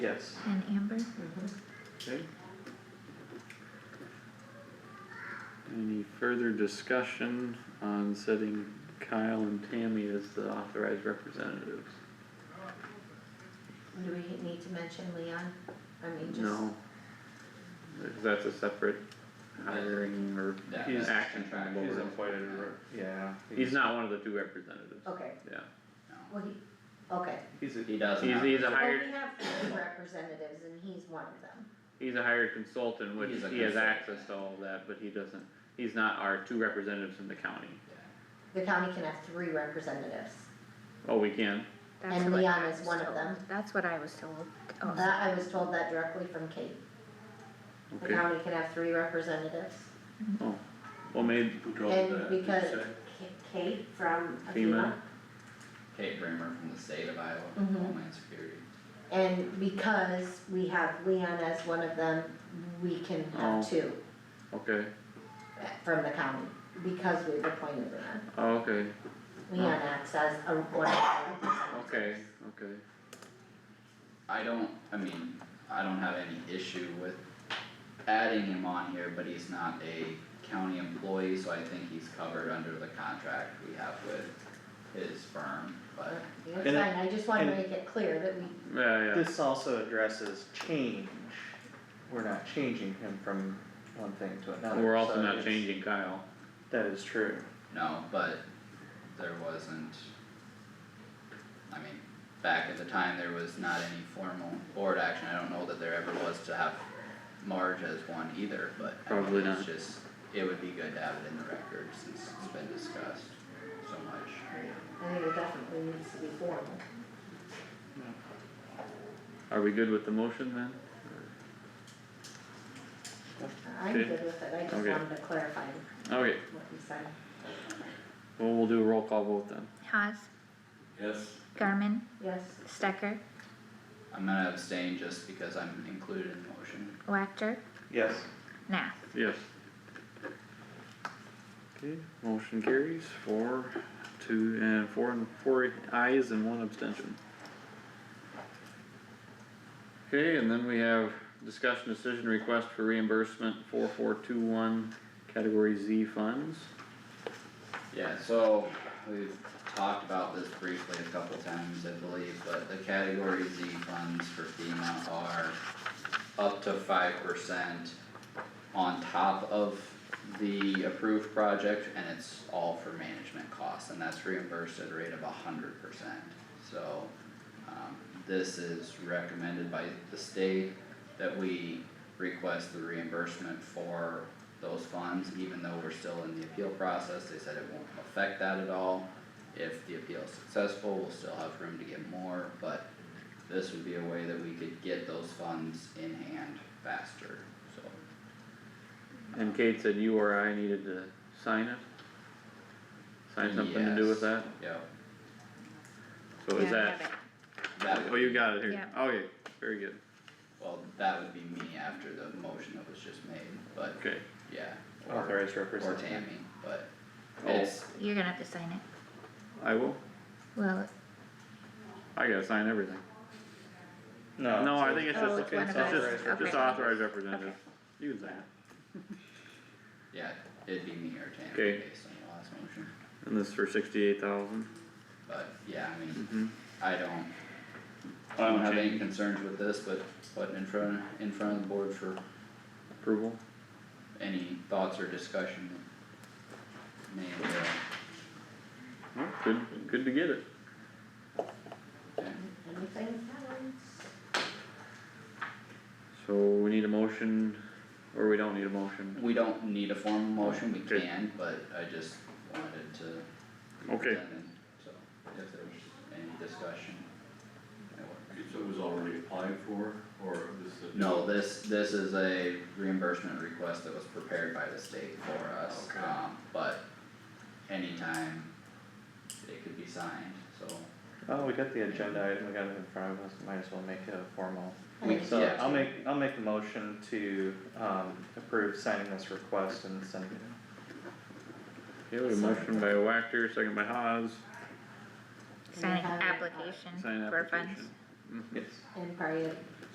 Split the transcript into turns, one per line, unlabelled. Yes.
And Amber?
Mm-hmm.
Okay. Any further discussion on setting Kyle and Tammy as the authorized representatives?
Do we need to mention Leon? I mean, just.
No. That's a separate hiring or
Yeah,
he's
that's
action from the
contract.
He's
board.
appointed, re- yeah.
He's not one of the two representatives,
Okay,
yeah.
well, he, okay.
He's a,
He doesn't.
He's,
have-
he's a
Well,
hired,
we have three representatives and he's one of them.
he's a hired consultant, which
He's a
he has
consultant.
access to all of that, but he doesn't, he's not our two representatives in the county.
The county can have three representatives.
Oh, we can,
That's
And
what I
Leon is
was
one of
told.
them. Uh,
That's what I was told. Oh,
That, I was told that directly from Kate. The
okay,
county can have three representatives.
oh, well, maybe,
who drove that?
And
did you
because
say?
K- Kate from FEMA,
FEMA.
Kate Bramer from the state of Iowa,
Mhm.
Homeland Security.
and because we have Leon as one of them, we can
Oh.
have two
okay,
uh, from the county, because we've appointed Leon.
oh, okay,
Leon acts as a, one of our representatives.
okay, okay.
I don't, I mean, I don't have any issue with adding him on here, but he's not a county employee, so I think he's covered under the contract we have with his firm, but.
Yeah, it's
And it-
fine, I just wanna
and-
make it clear that we,
Yeah, yeah,
This also addresses change, we're not changing him from one thing to another.
we're also
so
not
it's-
changing Kyle,
That is true.
No, but there wasn't, I mean, back at the time, there was not any formal board action, I don't know that there ever was to have Marge as one either, but I mean,
Probably
it's just, it would be good to have it in the record since it's been discussed so much.
I think it definitely needs to be formal.
are we good with the motion then?
I'm
Okay.
good with it, I just
Okay.
wanted to clarify
Okay,
what you said.
well, we'll do a roll call vote then,
Haas,
Yes.
Garmin,
Yes,
Stecker,
I'm gonna abstain just because I'm included in the motion.
Wactor,
Yes.
Nath.
yes. Okay, motion carries four, two, and four, and four ayes and one abstention. Okay, and then we have discussion decision request for reimbursement four four two one, category Z funds.
Yeah, so we've talked about this briefly a couple times, I believe, but the category Z funds for FEMA are up to five percent on top of the approved project, and it's all for management costs, and that's reimbursed at a rate of hundred percent. So, um, this is recommended by the state that we request the reimbursement for those funds, even though we're still in the appeal process, they said it won't affect that at all. If the appeal is successful, we'll still have room to get more, but this would be a way that we could get those funds in hand faster, so.
And Kate said you or I needed to sign it? Sign something to do with that?
Yeah,
So is
Yeah, I have
that,
it.
that
oh,
would,
you got it here,
Yeah.
okay, very good,
well, that would be me after the motion that was just made, but
okay.
yeah, or,
Authorized
or
representative.
Tammy, but
Oh.
it's,
You're gonna have to sign it.
I will,
Well,
I gotta sign everything.
No.
No, I
so-
think it's
Oh,
just,
it's one
it's
of
just,
us. Okay.
just authorized representative, you can sign it.
yeah, it'd be me or Tammy
Okay.
based on the last motion,
And this for sixty-eight thousand?
but yeah, I mean,
Mm-hmm.
I don't I don't have any
Change
concerns with this, but putting in front, in front of the board for
approval,
any thoughts or discussion. that May, uh,
Oh, good, good to get it.
uh,
anything
So we need a motion, or we don't need a motion,
we don't need a formal motion, we
Okay.
can, but I just wanted to. be
Okay.
presented, So, if there's any discussion. that works.
So it was already applied for, or this is? a-
No, this, this is a reimbursement request that was prepared by the state for us,
Okay.
um, but anytime it could be signed, so.
Oh, we got the agenda item, we got it in front of us, might as well make it a formal.
We-
So
Yeah.
I'll make, I'll make a motion to, um, approve signing this request and sending it.
Okay, we have a motion by Wactor, second by Haas,
sign an
have it.
application
sign
for funds.
application.
Yes.
And probably